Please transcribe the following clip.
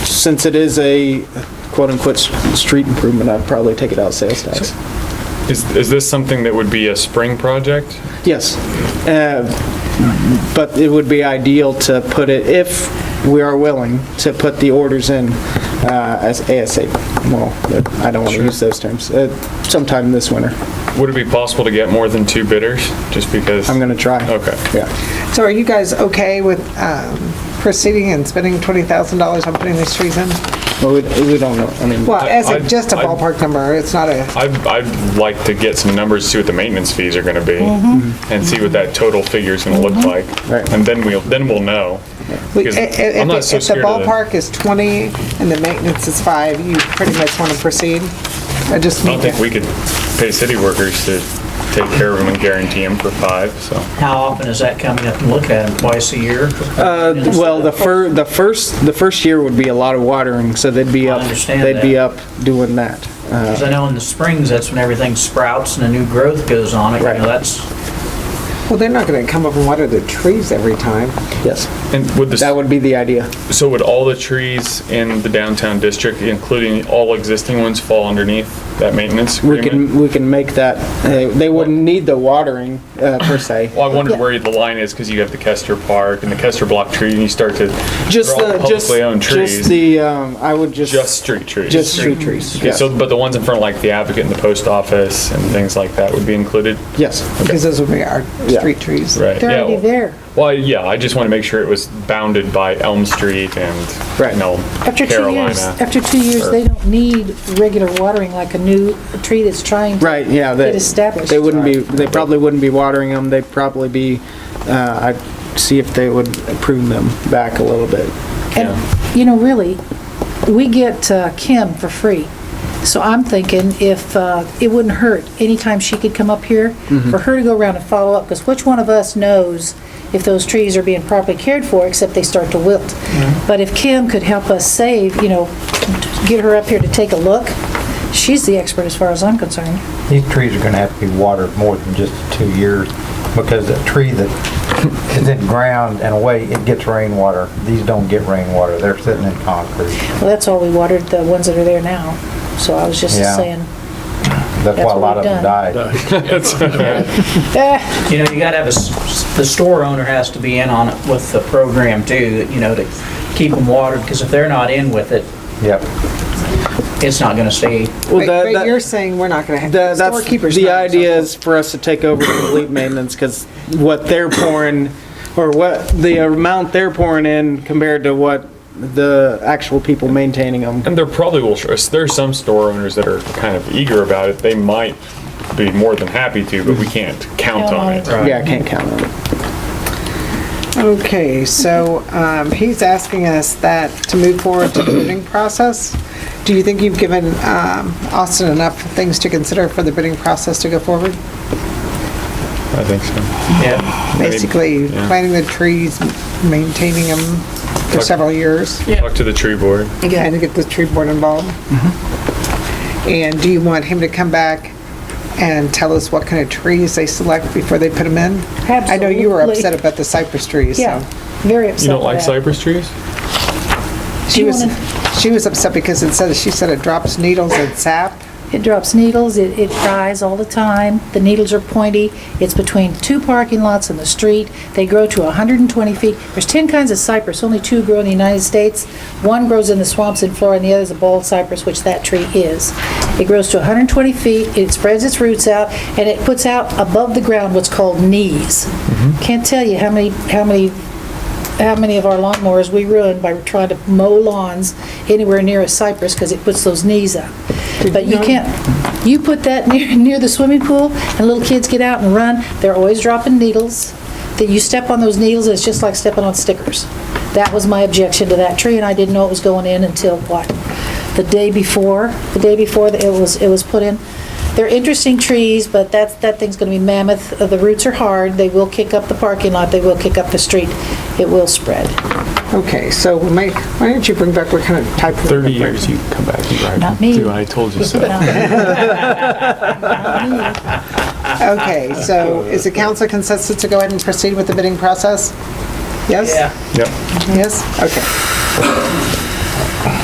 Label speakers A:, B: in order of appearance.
A: since it is a quote-unquote s- street improvement, I'd probably take it out of sales tax.
B: Is, is this something that would be a spring project?
A: Yes. Uh, But it would be ideal to put it, if we are willing, to put the orders in uh, as ASAP. Well, I don't want to use those terms. Uh, Sometime this winter.
B: Would it be possible to get more than two bidders? Just because?
A: I'm going to try.
B: Okay.
A: Yeah.
C: So are you guys okay with um, proceeding and spending $20,000 on putting these trees in?
A: Well, we we don't know. I mean,
C: Well,
B: I-
C: as a,
B: I'd-
C: just a
B: I'd-
C: ballpark number, it's not a,
B: I'd, I'd like to get some numbers, see what the maintenance fees are gonna be, and see what that total figure is gonna look like.
A: Mm-hmm. Right.
B: And then we'll, then we'll know.
C: we- i-
B: Because
C: i-
B: I'm
C: if
B: not so
C: if the
B: scared of the-
C: ballpark is 20 and the maintenance is five, you pretty much want to proceed? I just
B: I don't
C: need
B: think
C: to,
B: we could pay city workers to take care of them and guarantee them for five, so.
D: How often is that coming up to look at? them? Twice a year?
A: Uh, Well, the fir, the first, the first year would be a lot of watering, so they'd be
D: I
A: up,
D: understand
A: they'd be
D: that.
A: up doing that. Uh,
D: Because I know in the springs, that's when everything sprouts and a new growth goes on it. You
A: Right.
D: know, that's,
C: well, they're not going to come up and water the trees every time.
A: Yes,
B: And would
A: that
B: the,
A: would be the idea.
B: so would all the trees in the downtown district, including all existing ones, fall underneath that maintenance
A: We
B: agreement?
A: can, we can make that, uh, they wouldn't need the watering uh, per se.
B: Well, I wondered where the line is because you have the Kester Park and the Kester Block tree, and you start to
A: Just
B: they're all
A: the, just,
B: publicly owned trees,
A: just the, um, I would just.
B: Just street trees.
A: Just street trees,
B: Okay,
A: yes.
B: so but the ones in front of like the Advocate and the post office and things like that would be included,
A: Yes,
C: Because those would be our
A: Yeah.
C: street trees.
B: right?
E: They're
B: yeah,
E: already there.
B: Well, yeah, I just want to make sure it was bounded by Elm Street and
A: Right.
B: you know,
E: After two
B: Carolina.
E: years, after two years, they don't need regular watering like a new tree that's trying to.
A: right, yeah.
E: Get
A: they-
E: established.
A: They wouldn't be, they probably wouldn't be watering them, they'd probably be, uh, I'd see if they would prune them back a little bit.
E: And, you know, really, we get uh, Kim for free. So I'm thinking if, uh, it wouldn't hurt, anytime she could come up here,
A: Mm-hmm.
E: for her to go around and follow up, because which one of us knows if those trees are being properly cared for, except they start to wilt?
A: Mm-hmm.
E: But if Kim could help us save, you know, get her up here to take a look, she's the expert as far as I'm concerned.
F: These trees are gonna have to be watered more than just two years, because a tree that is in ground and away, it gets rainwater. These don't get rainwater, they're sitting in concrete.
E: Well, that's all we watered, the ones that are there now. So I was just
F: Yeah.
E: saying,
F: That's why
E: That's
F: a lot
E: what
F: of
E: we've
F: them
E: done.
F: died.
E: eh,
D: you know, you gotta have a, s- s- the store owner has to be in on it with the program too, you know, to keep them watered, because if they're not in with it,
F: Yep.
D: it's not gonna stay.
A: Well,
C: But
A: that-
C: but
A: that-
C: you're saying we're not going to have,
A: The-
C: the
A: That's,
C: storekeeper's.
A: the
C: not responsible.
A: idea is for us to take over complete maintenance, because what they're pouring, or what, the amount they're pouring in compared to what the actual people maintaining them.
B: And there probably will, there are some store owners that are kind of eager about it. They might be more than happy to, but we can't count
E: Count
B: on
E: on
B: it.
E: it.
A: Yeah, I can't count on it.
C: Okay, so um, he's asking us that to move forward to the bidding process. Do you think you've given um, Austin enough things to consider for the bidding process to go forward?
B: I think so.
D: Yeah.
C: Basically,
B: yeah.
C: planting the trees, maintaining them for
B: Okay.
C: several years,
B: Talk to the tree board.
C: and to get the tree board involved. And do you want him to come back and tell us what kind of trees they select before they put them in? I know you were upset
E: Absolutely.
C: about the cypress trees, so.
E: yeah, very upset.
B: You don't
E: with
B: like
E: that.
B: cypress trees?
C: She
E: Do you
C: was,
E: wanna-
C: she was upset because it said, she said it drops needles and sap.
E: It drops needles, it, it fries all the time, the needles are pointy, it's between two parking lots and the street, they grow to 120 feet. There's 10 kinds of cypress, only two grow in the United States. One grows in the swamps in Florida, and the other is a bald cypress, which that tree is. It grows to 120 feet, it spreads its roots out, and it puts out above the ground what's called knees.
B: Mm-hmm.
E: Can't tell you how many, how many how many of our lawnmowers we ruined by trying to mow lawns anywhere near a cypress because it puts those knees up. But you can't, you put that near, near the swimming pool and little kids get out and run, they're always dropping needles. That you step on those needles, it's just like stepping on stickers. That was my objection to that tree and I didn't know it was going in until what? The day before, the day before that it was, it was put in. They're interesting trees, but that's, that thing's gonna be mammoth. Uh, The roots are hard, they will kick up the parking lot, they will kick up the street, it will spread.
C: Okay, so we might, why don't you bring back what kind of type of...
B: 30 years, you come back and drive.
E: Not me.
B: Dude, I told you so.
C: Okay, so is the council consensus to go ahead and proceed with the bidding process? Yes?
D: Yeah.
B: Yep.
C: Yes? Okay.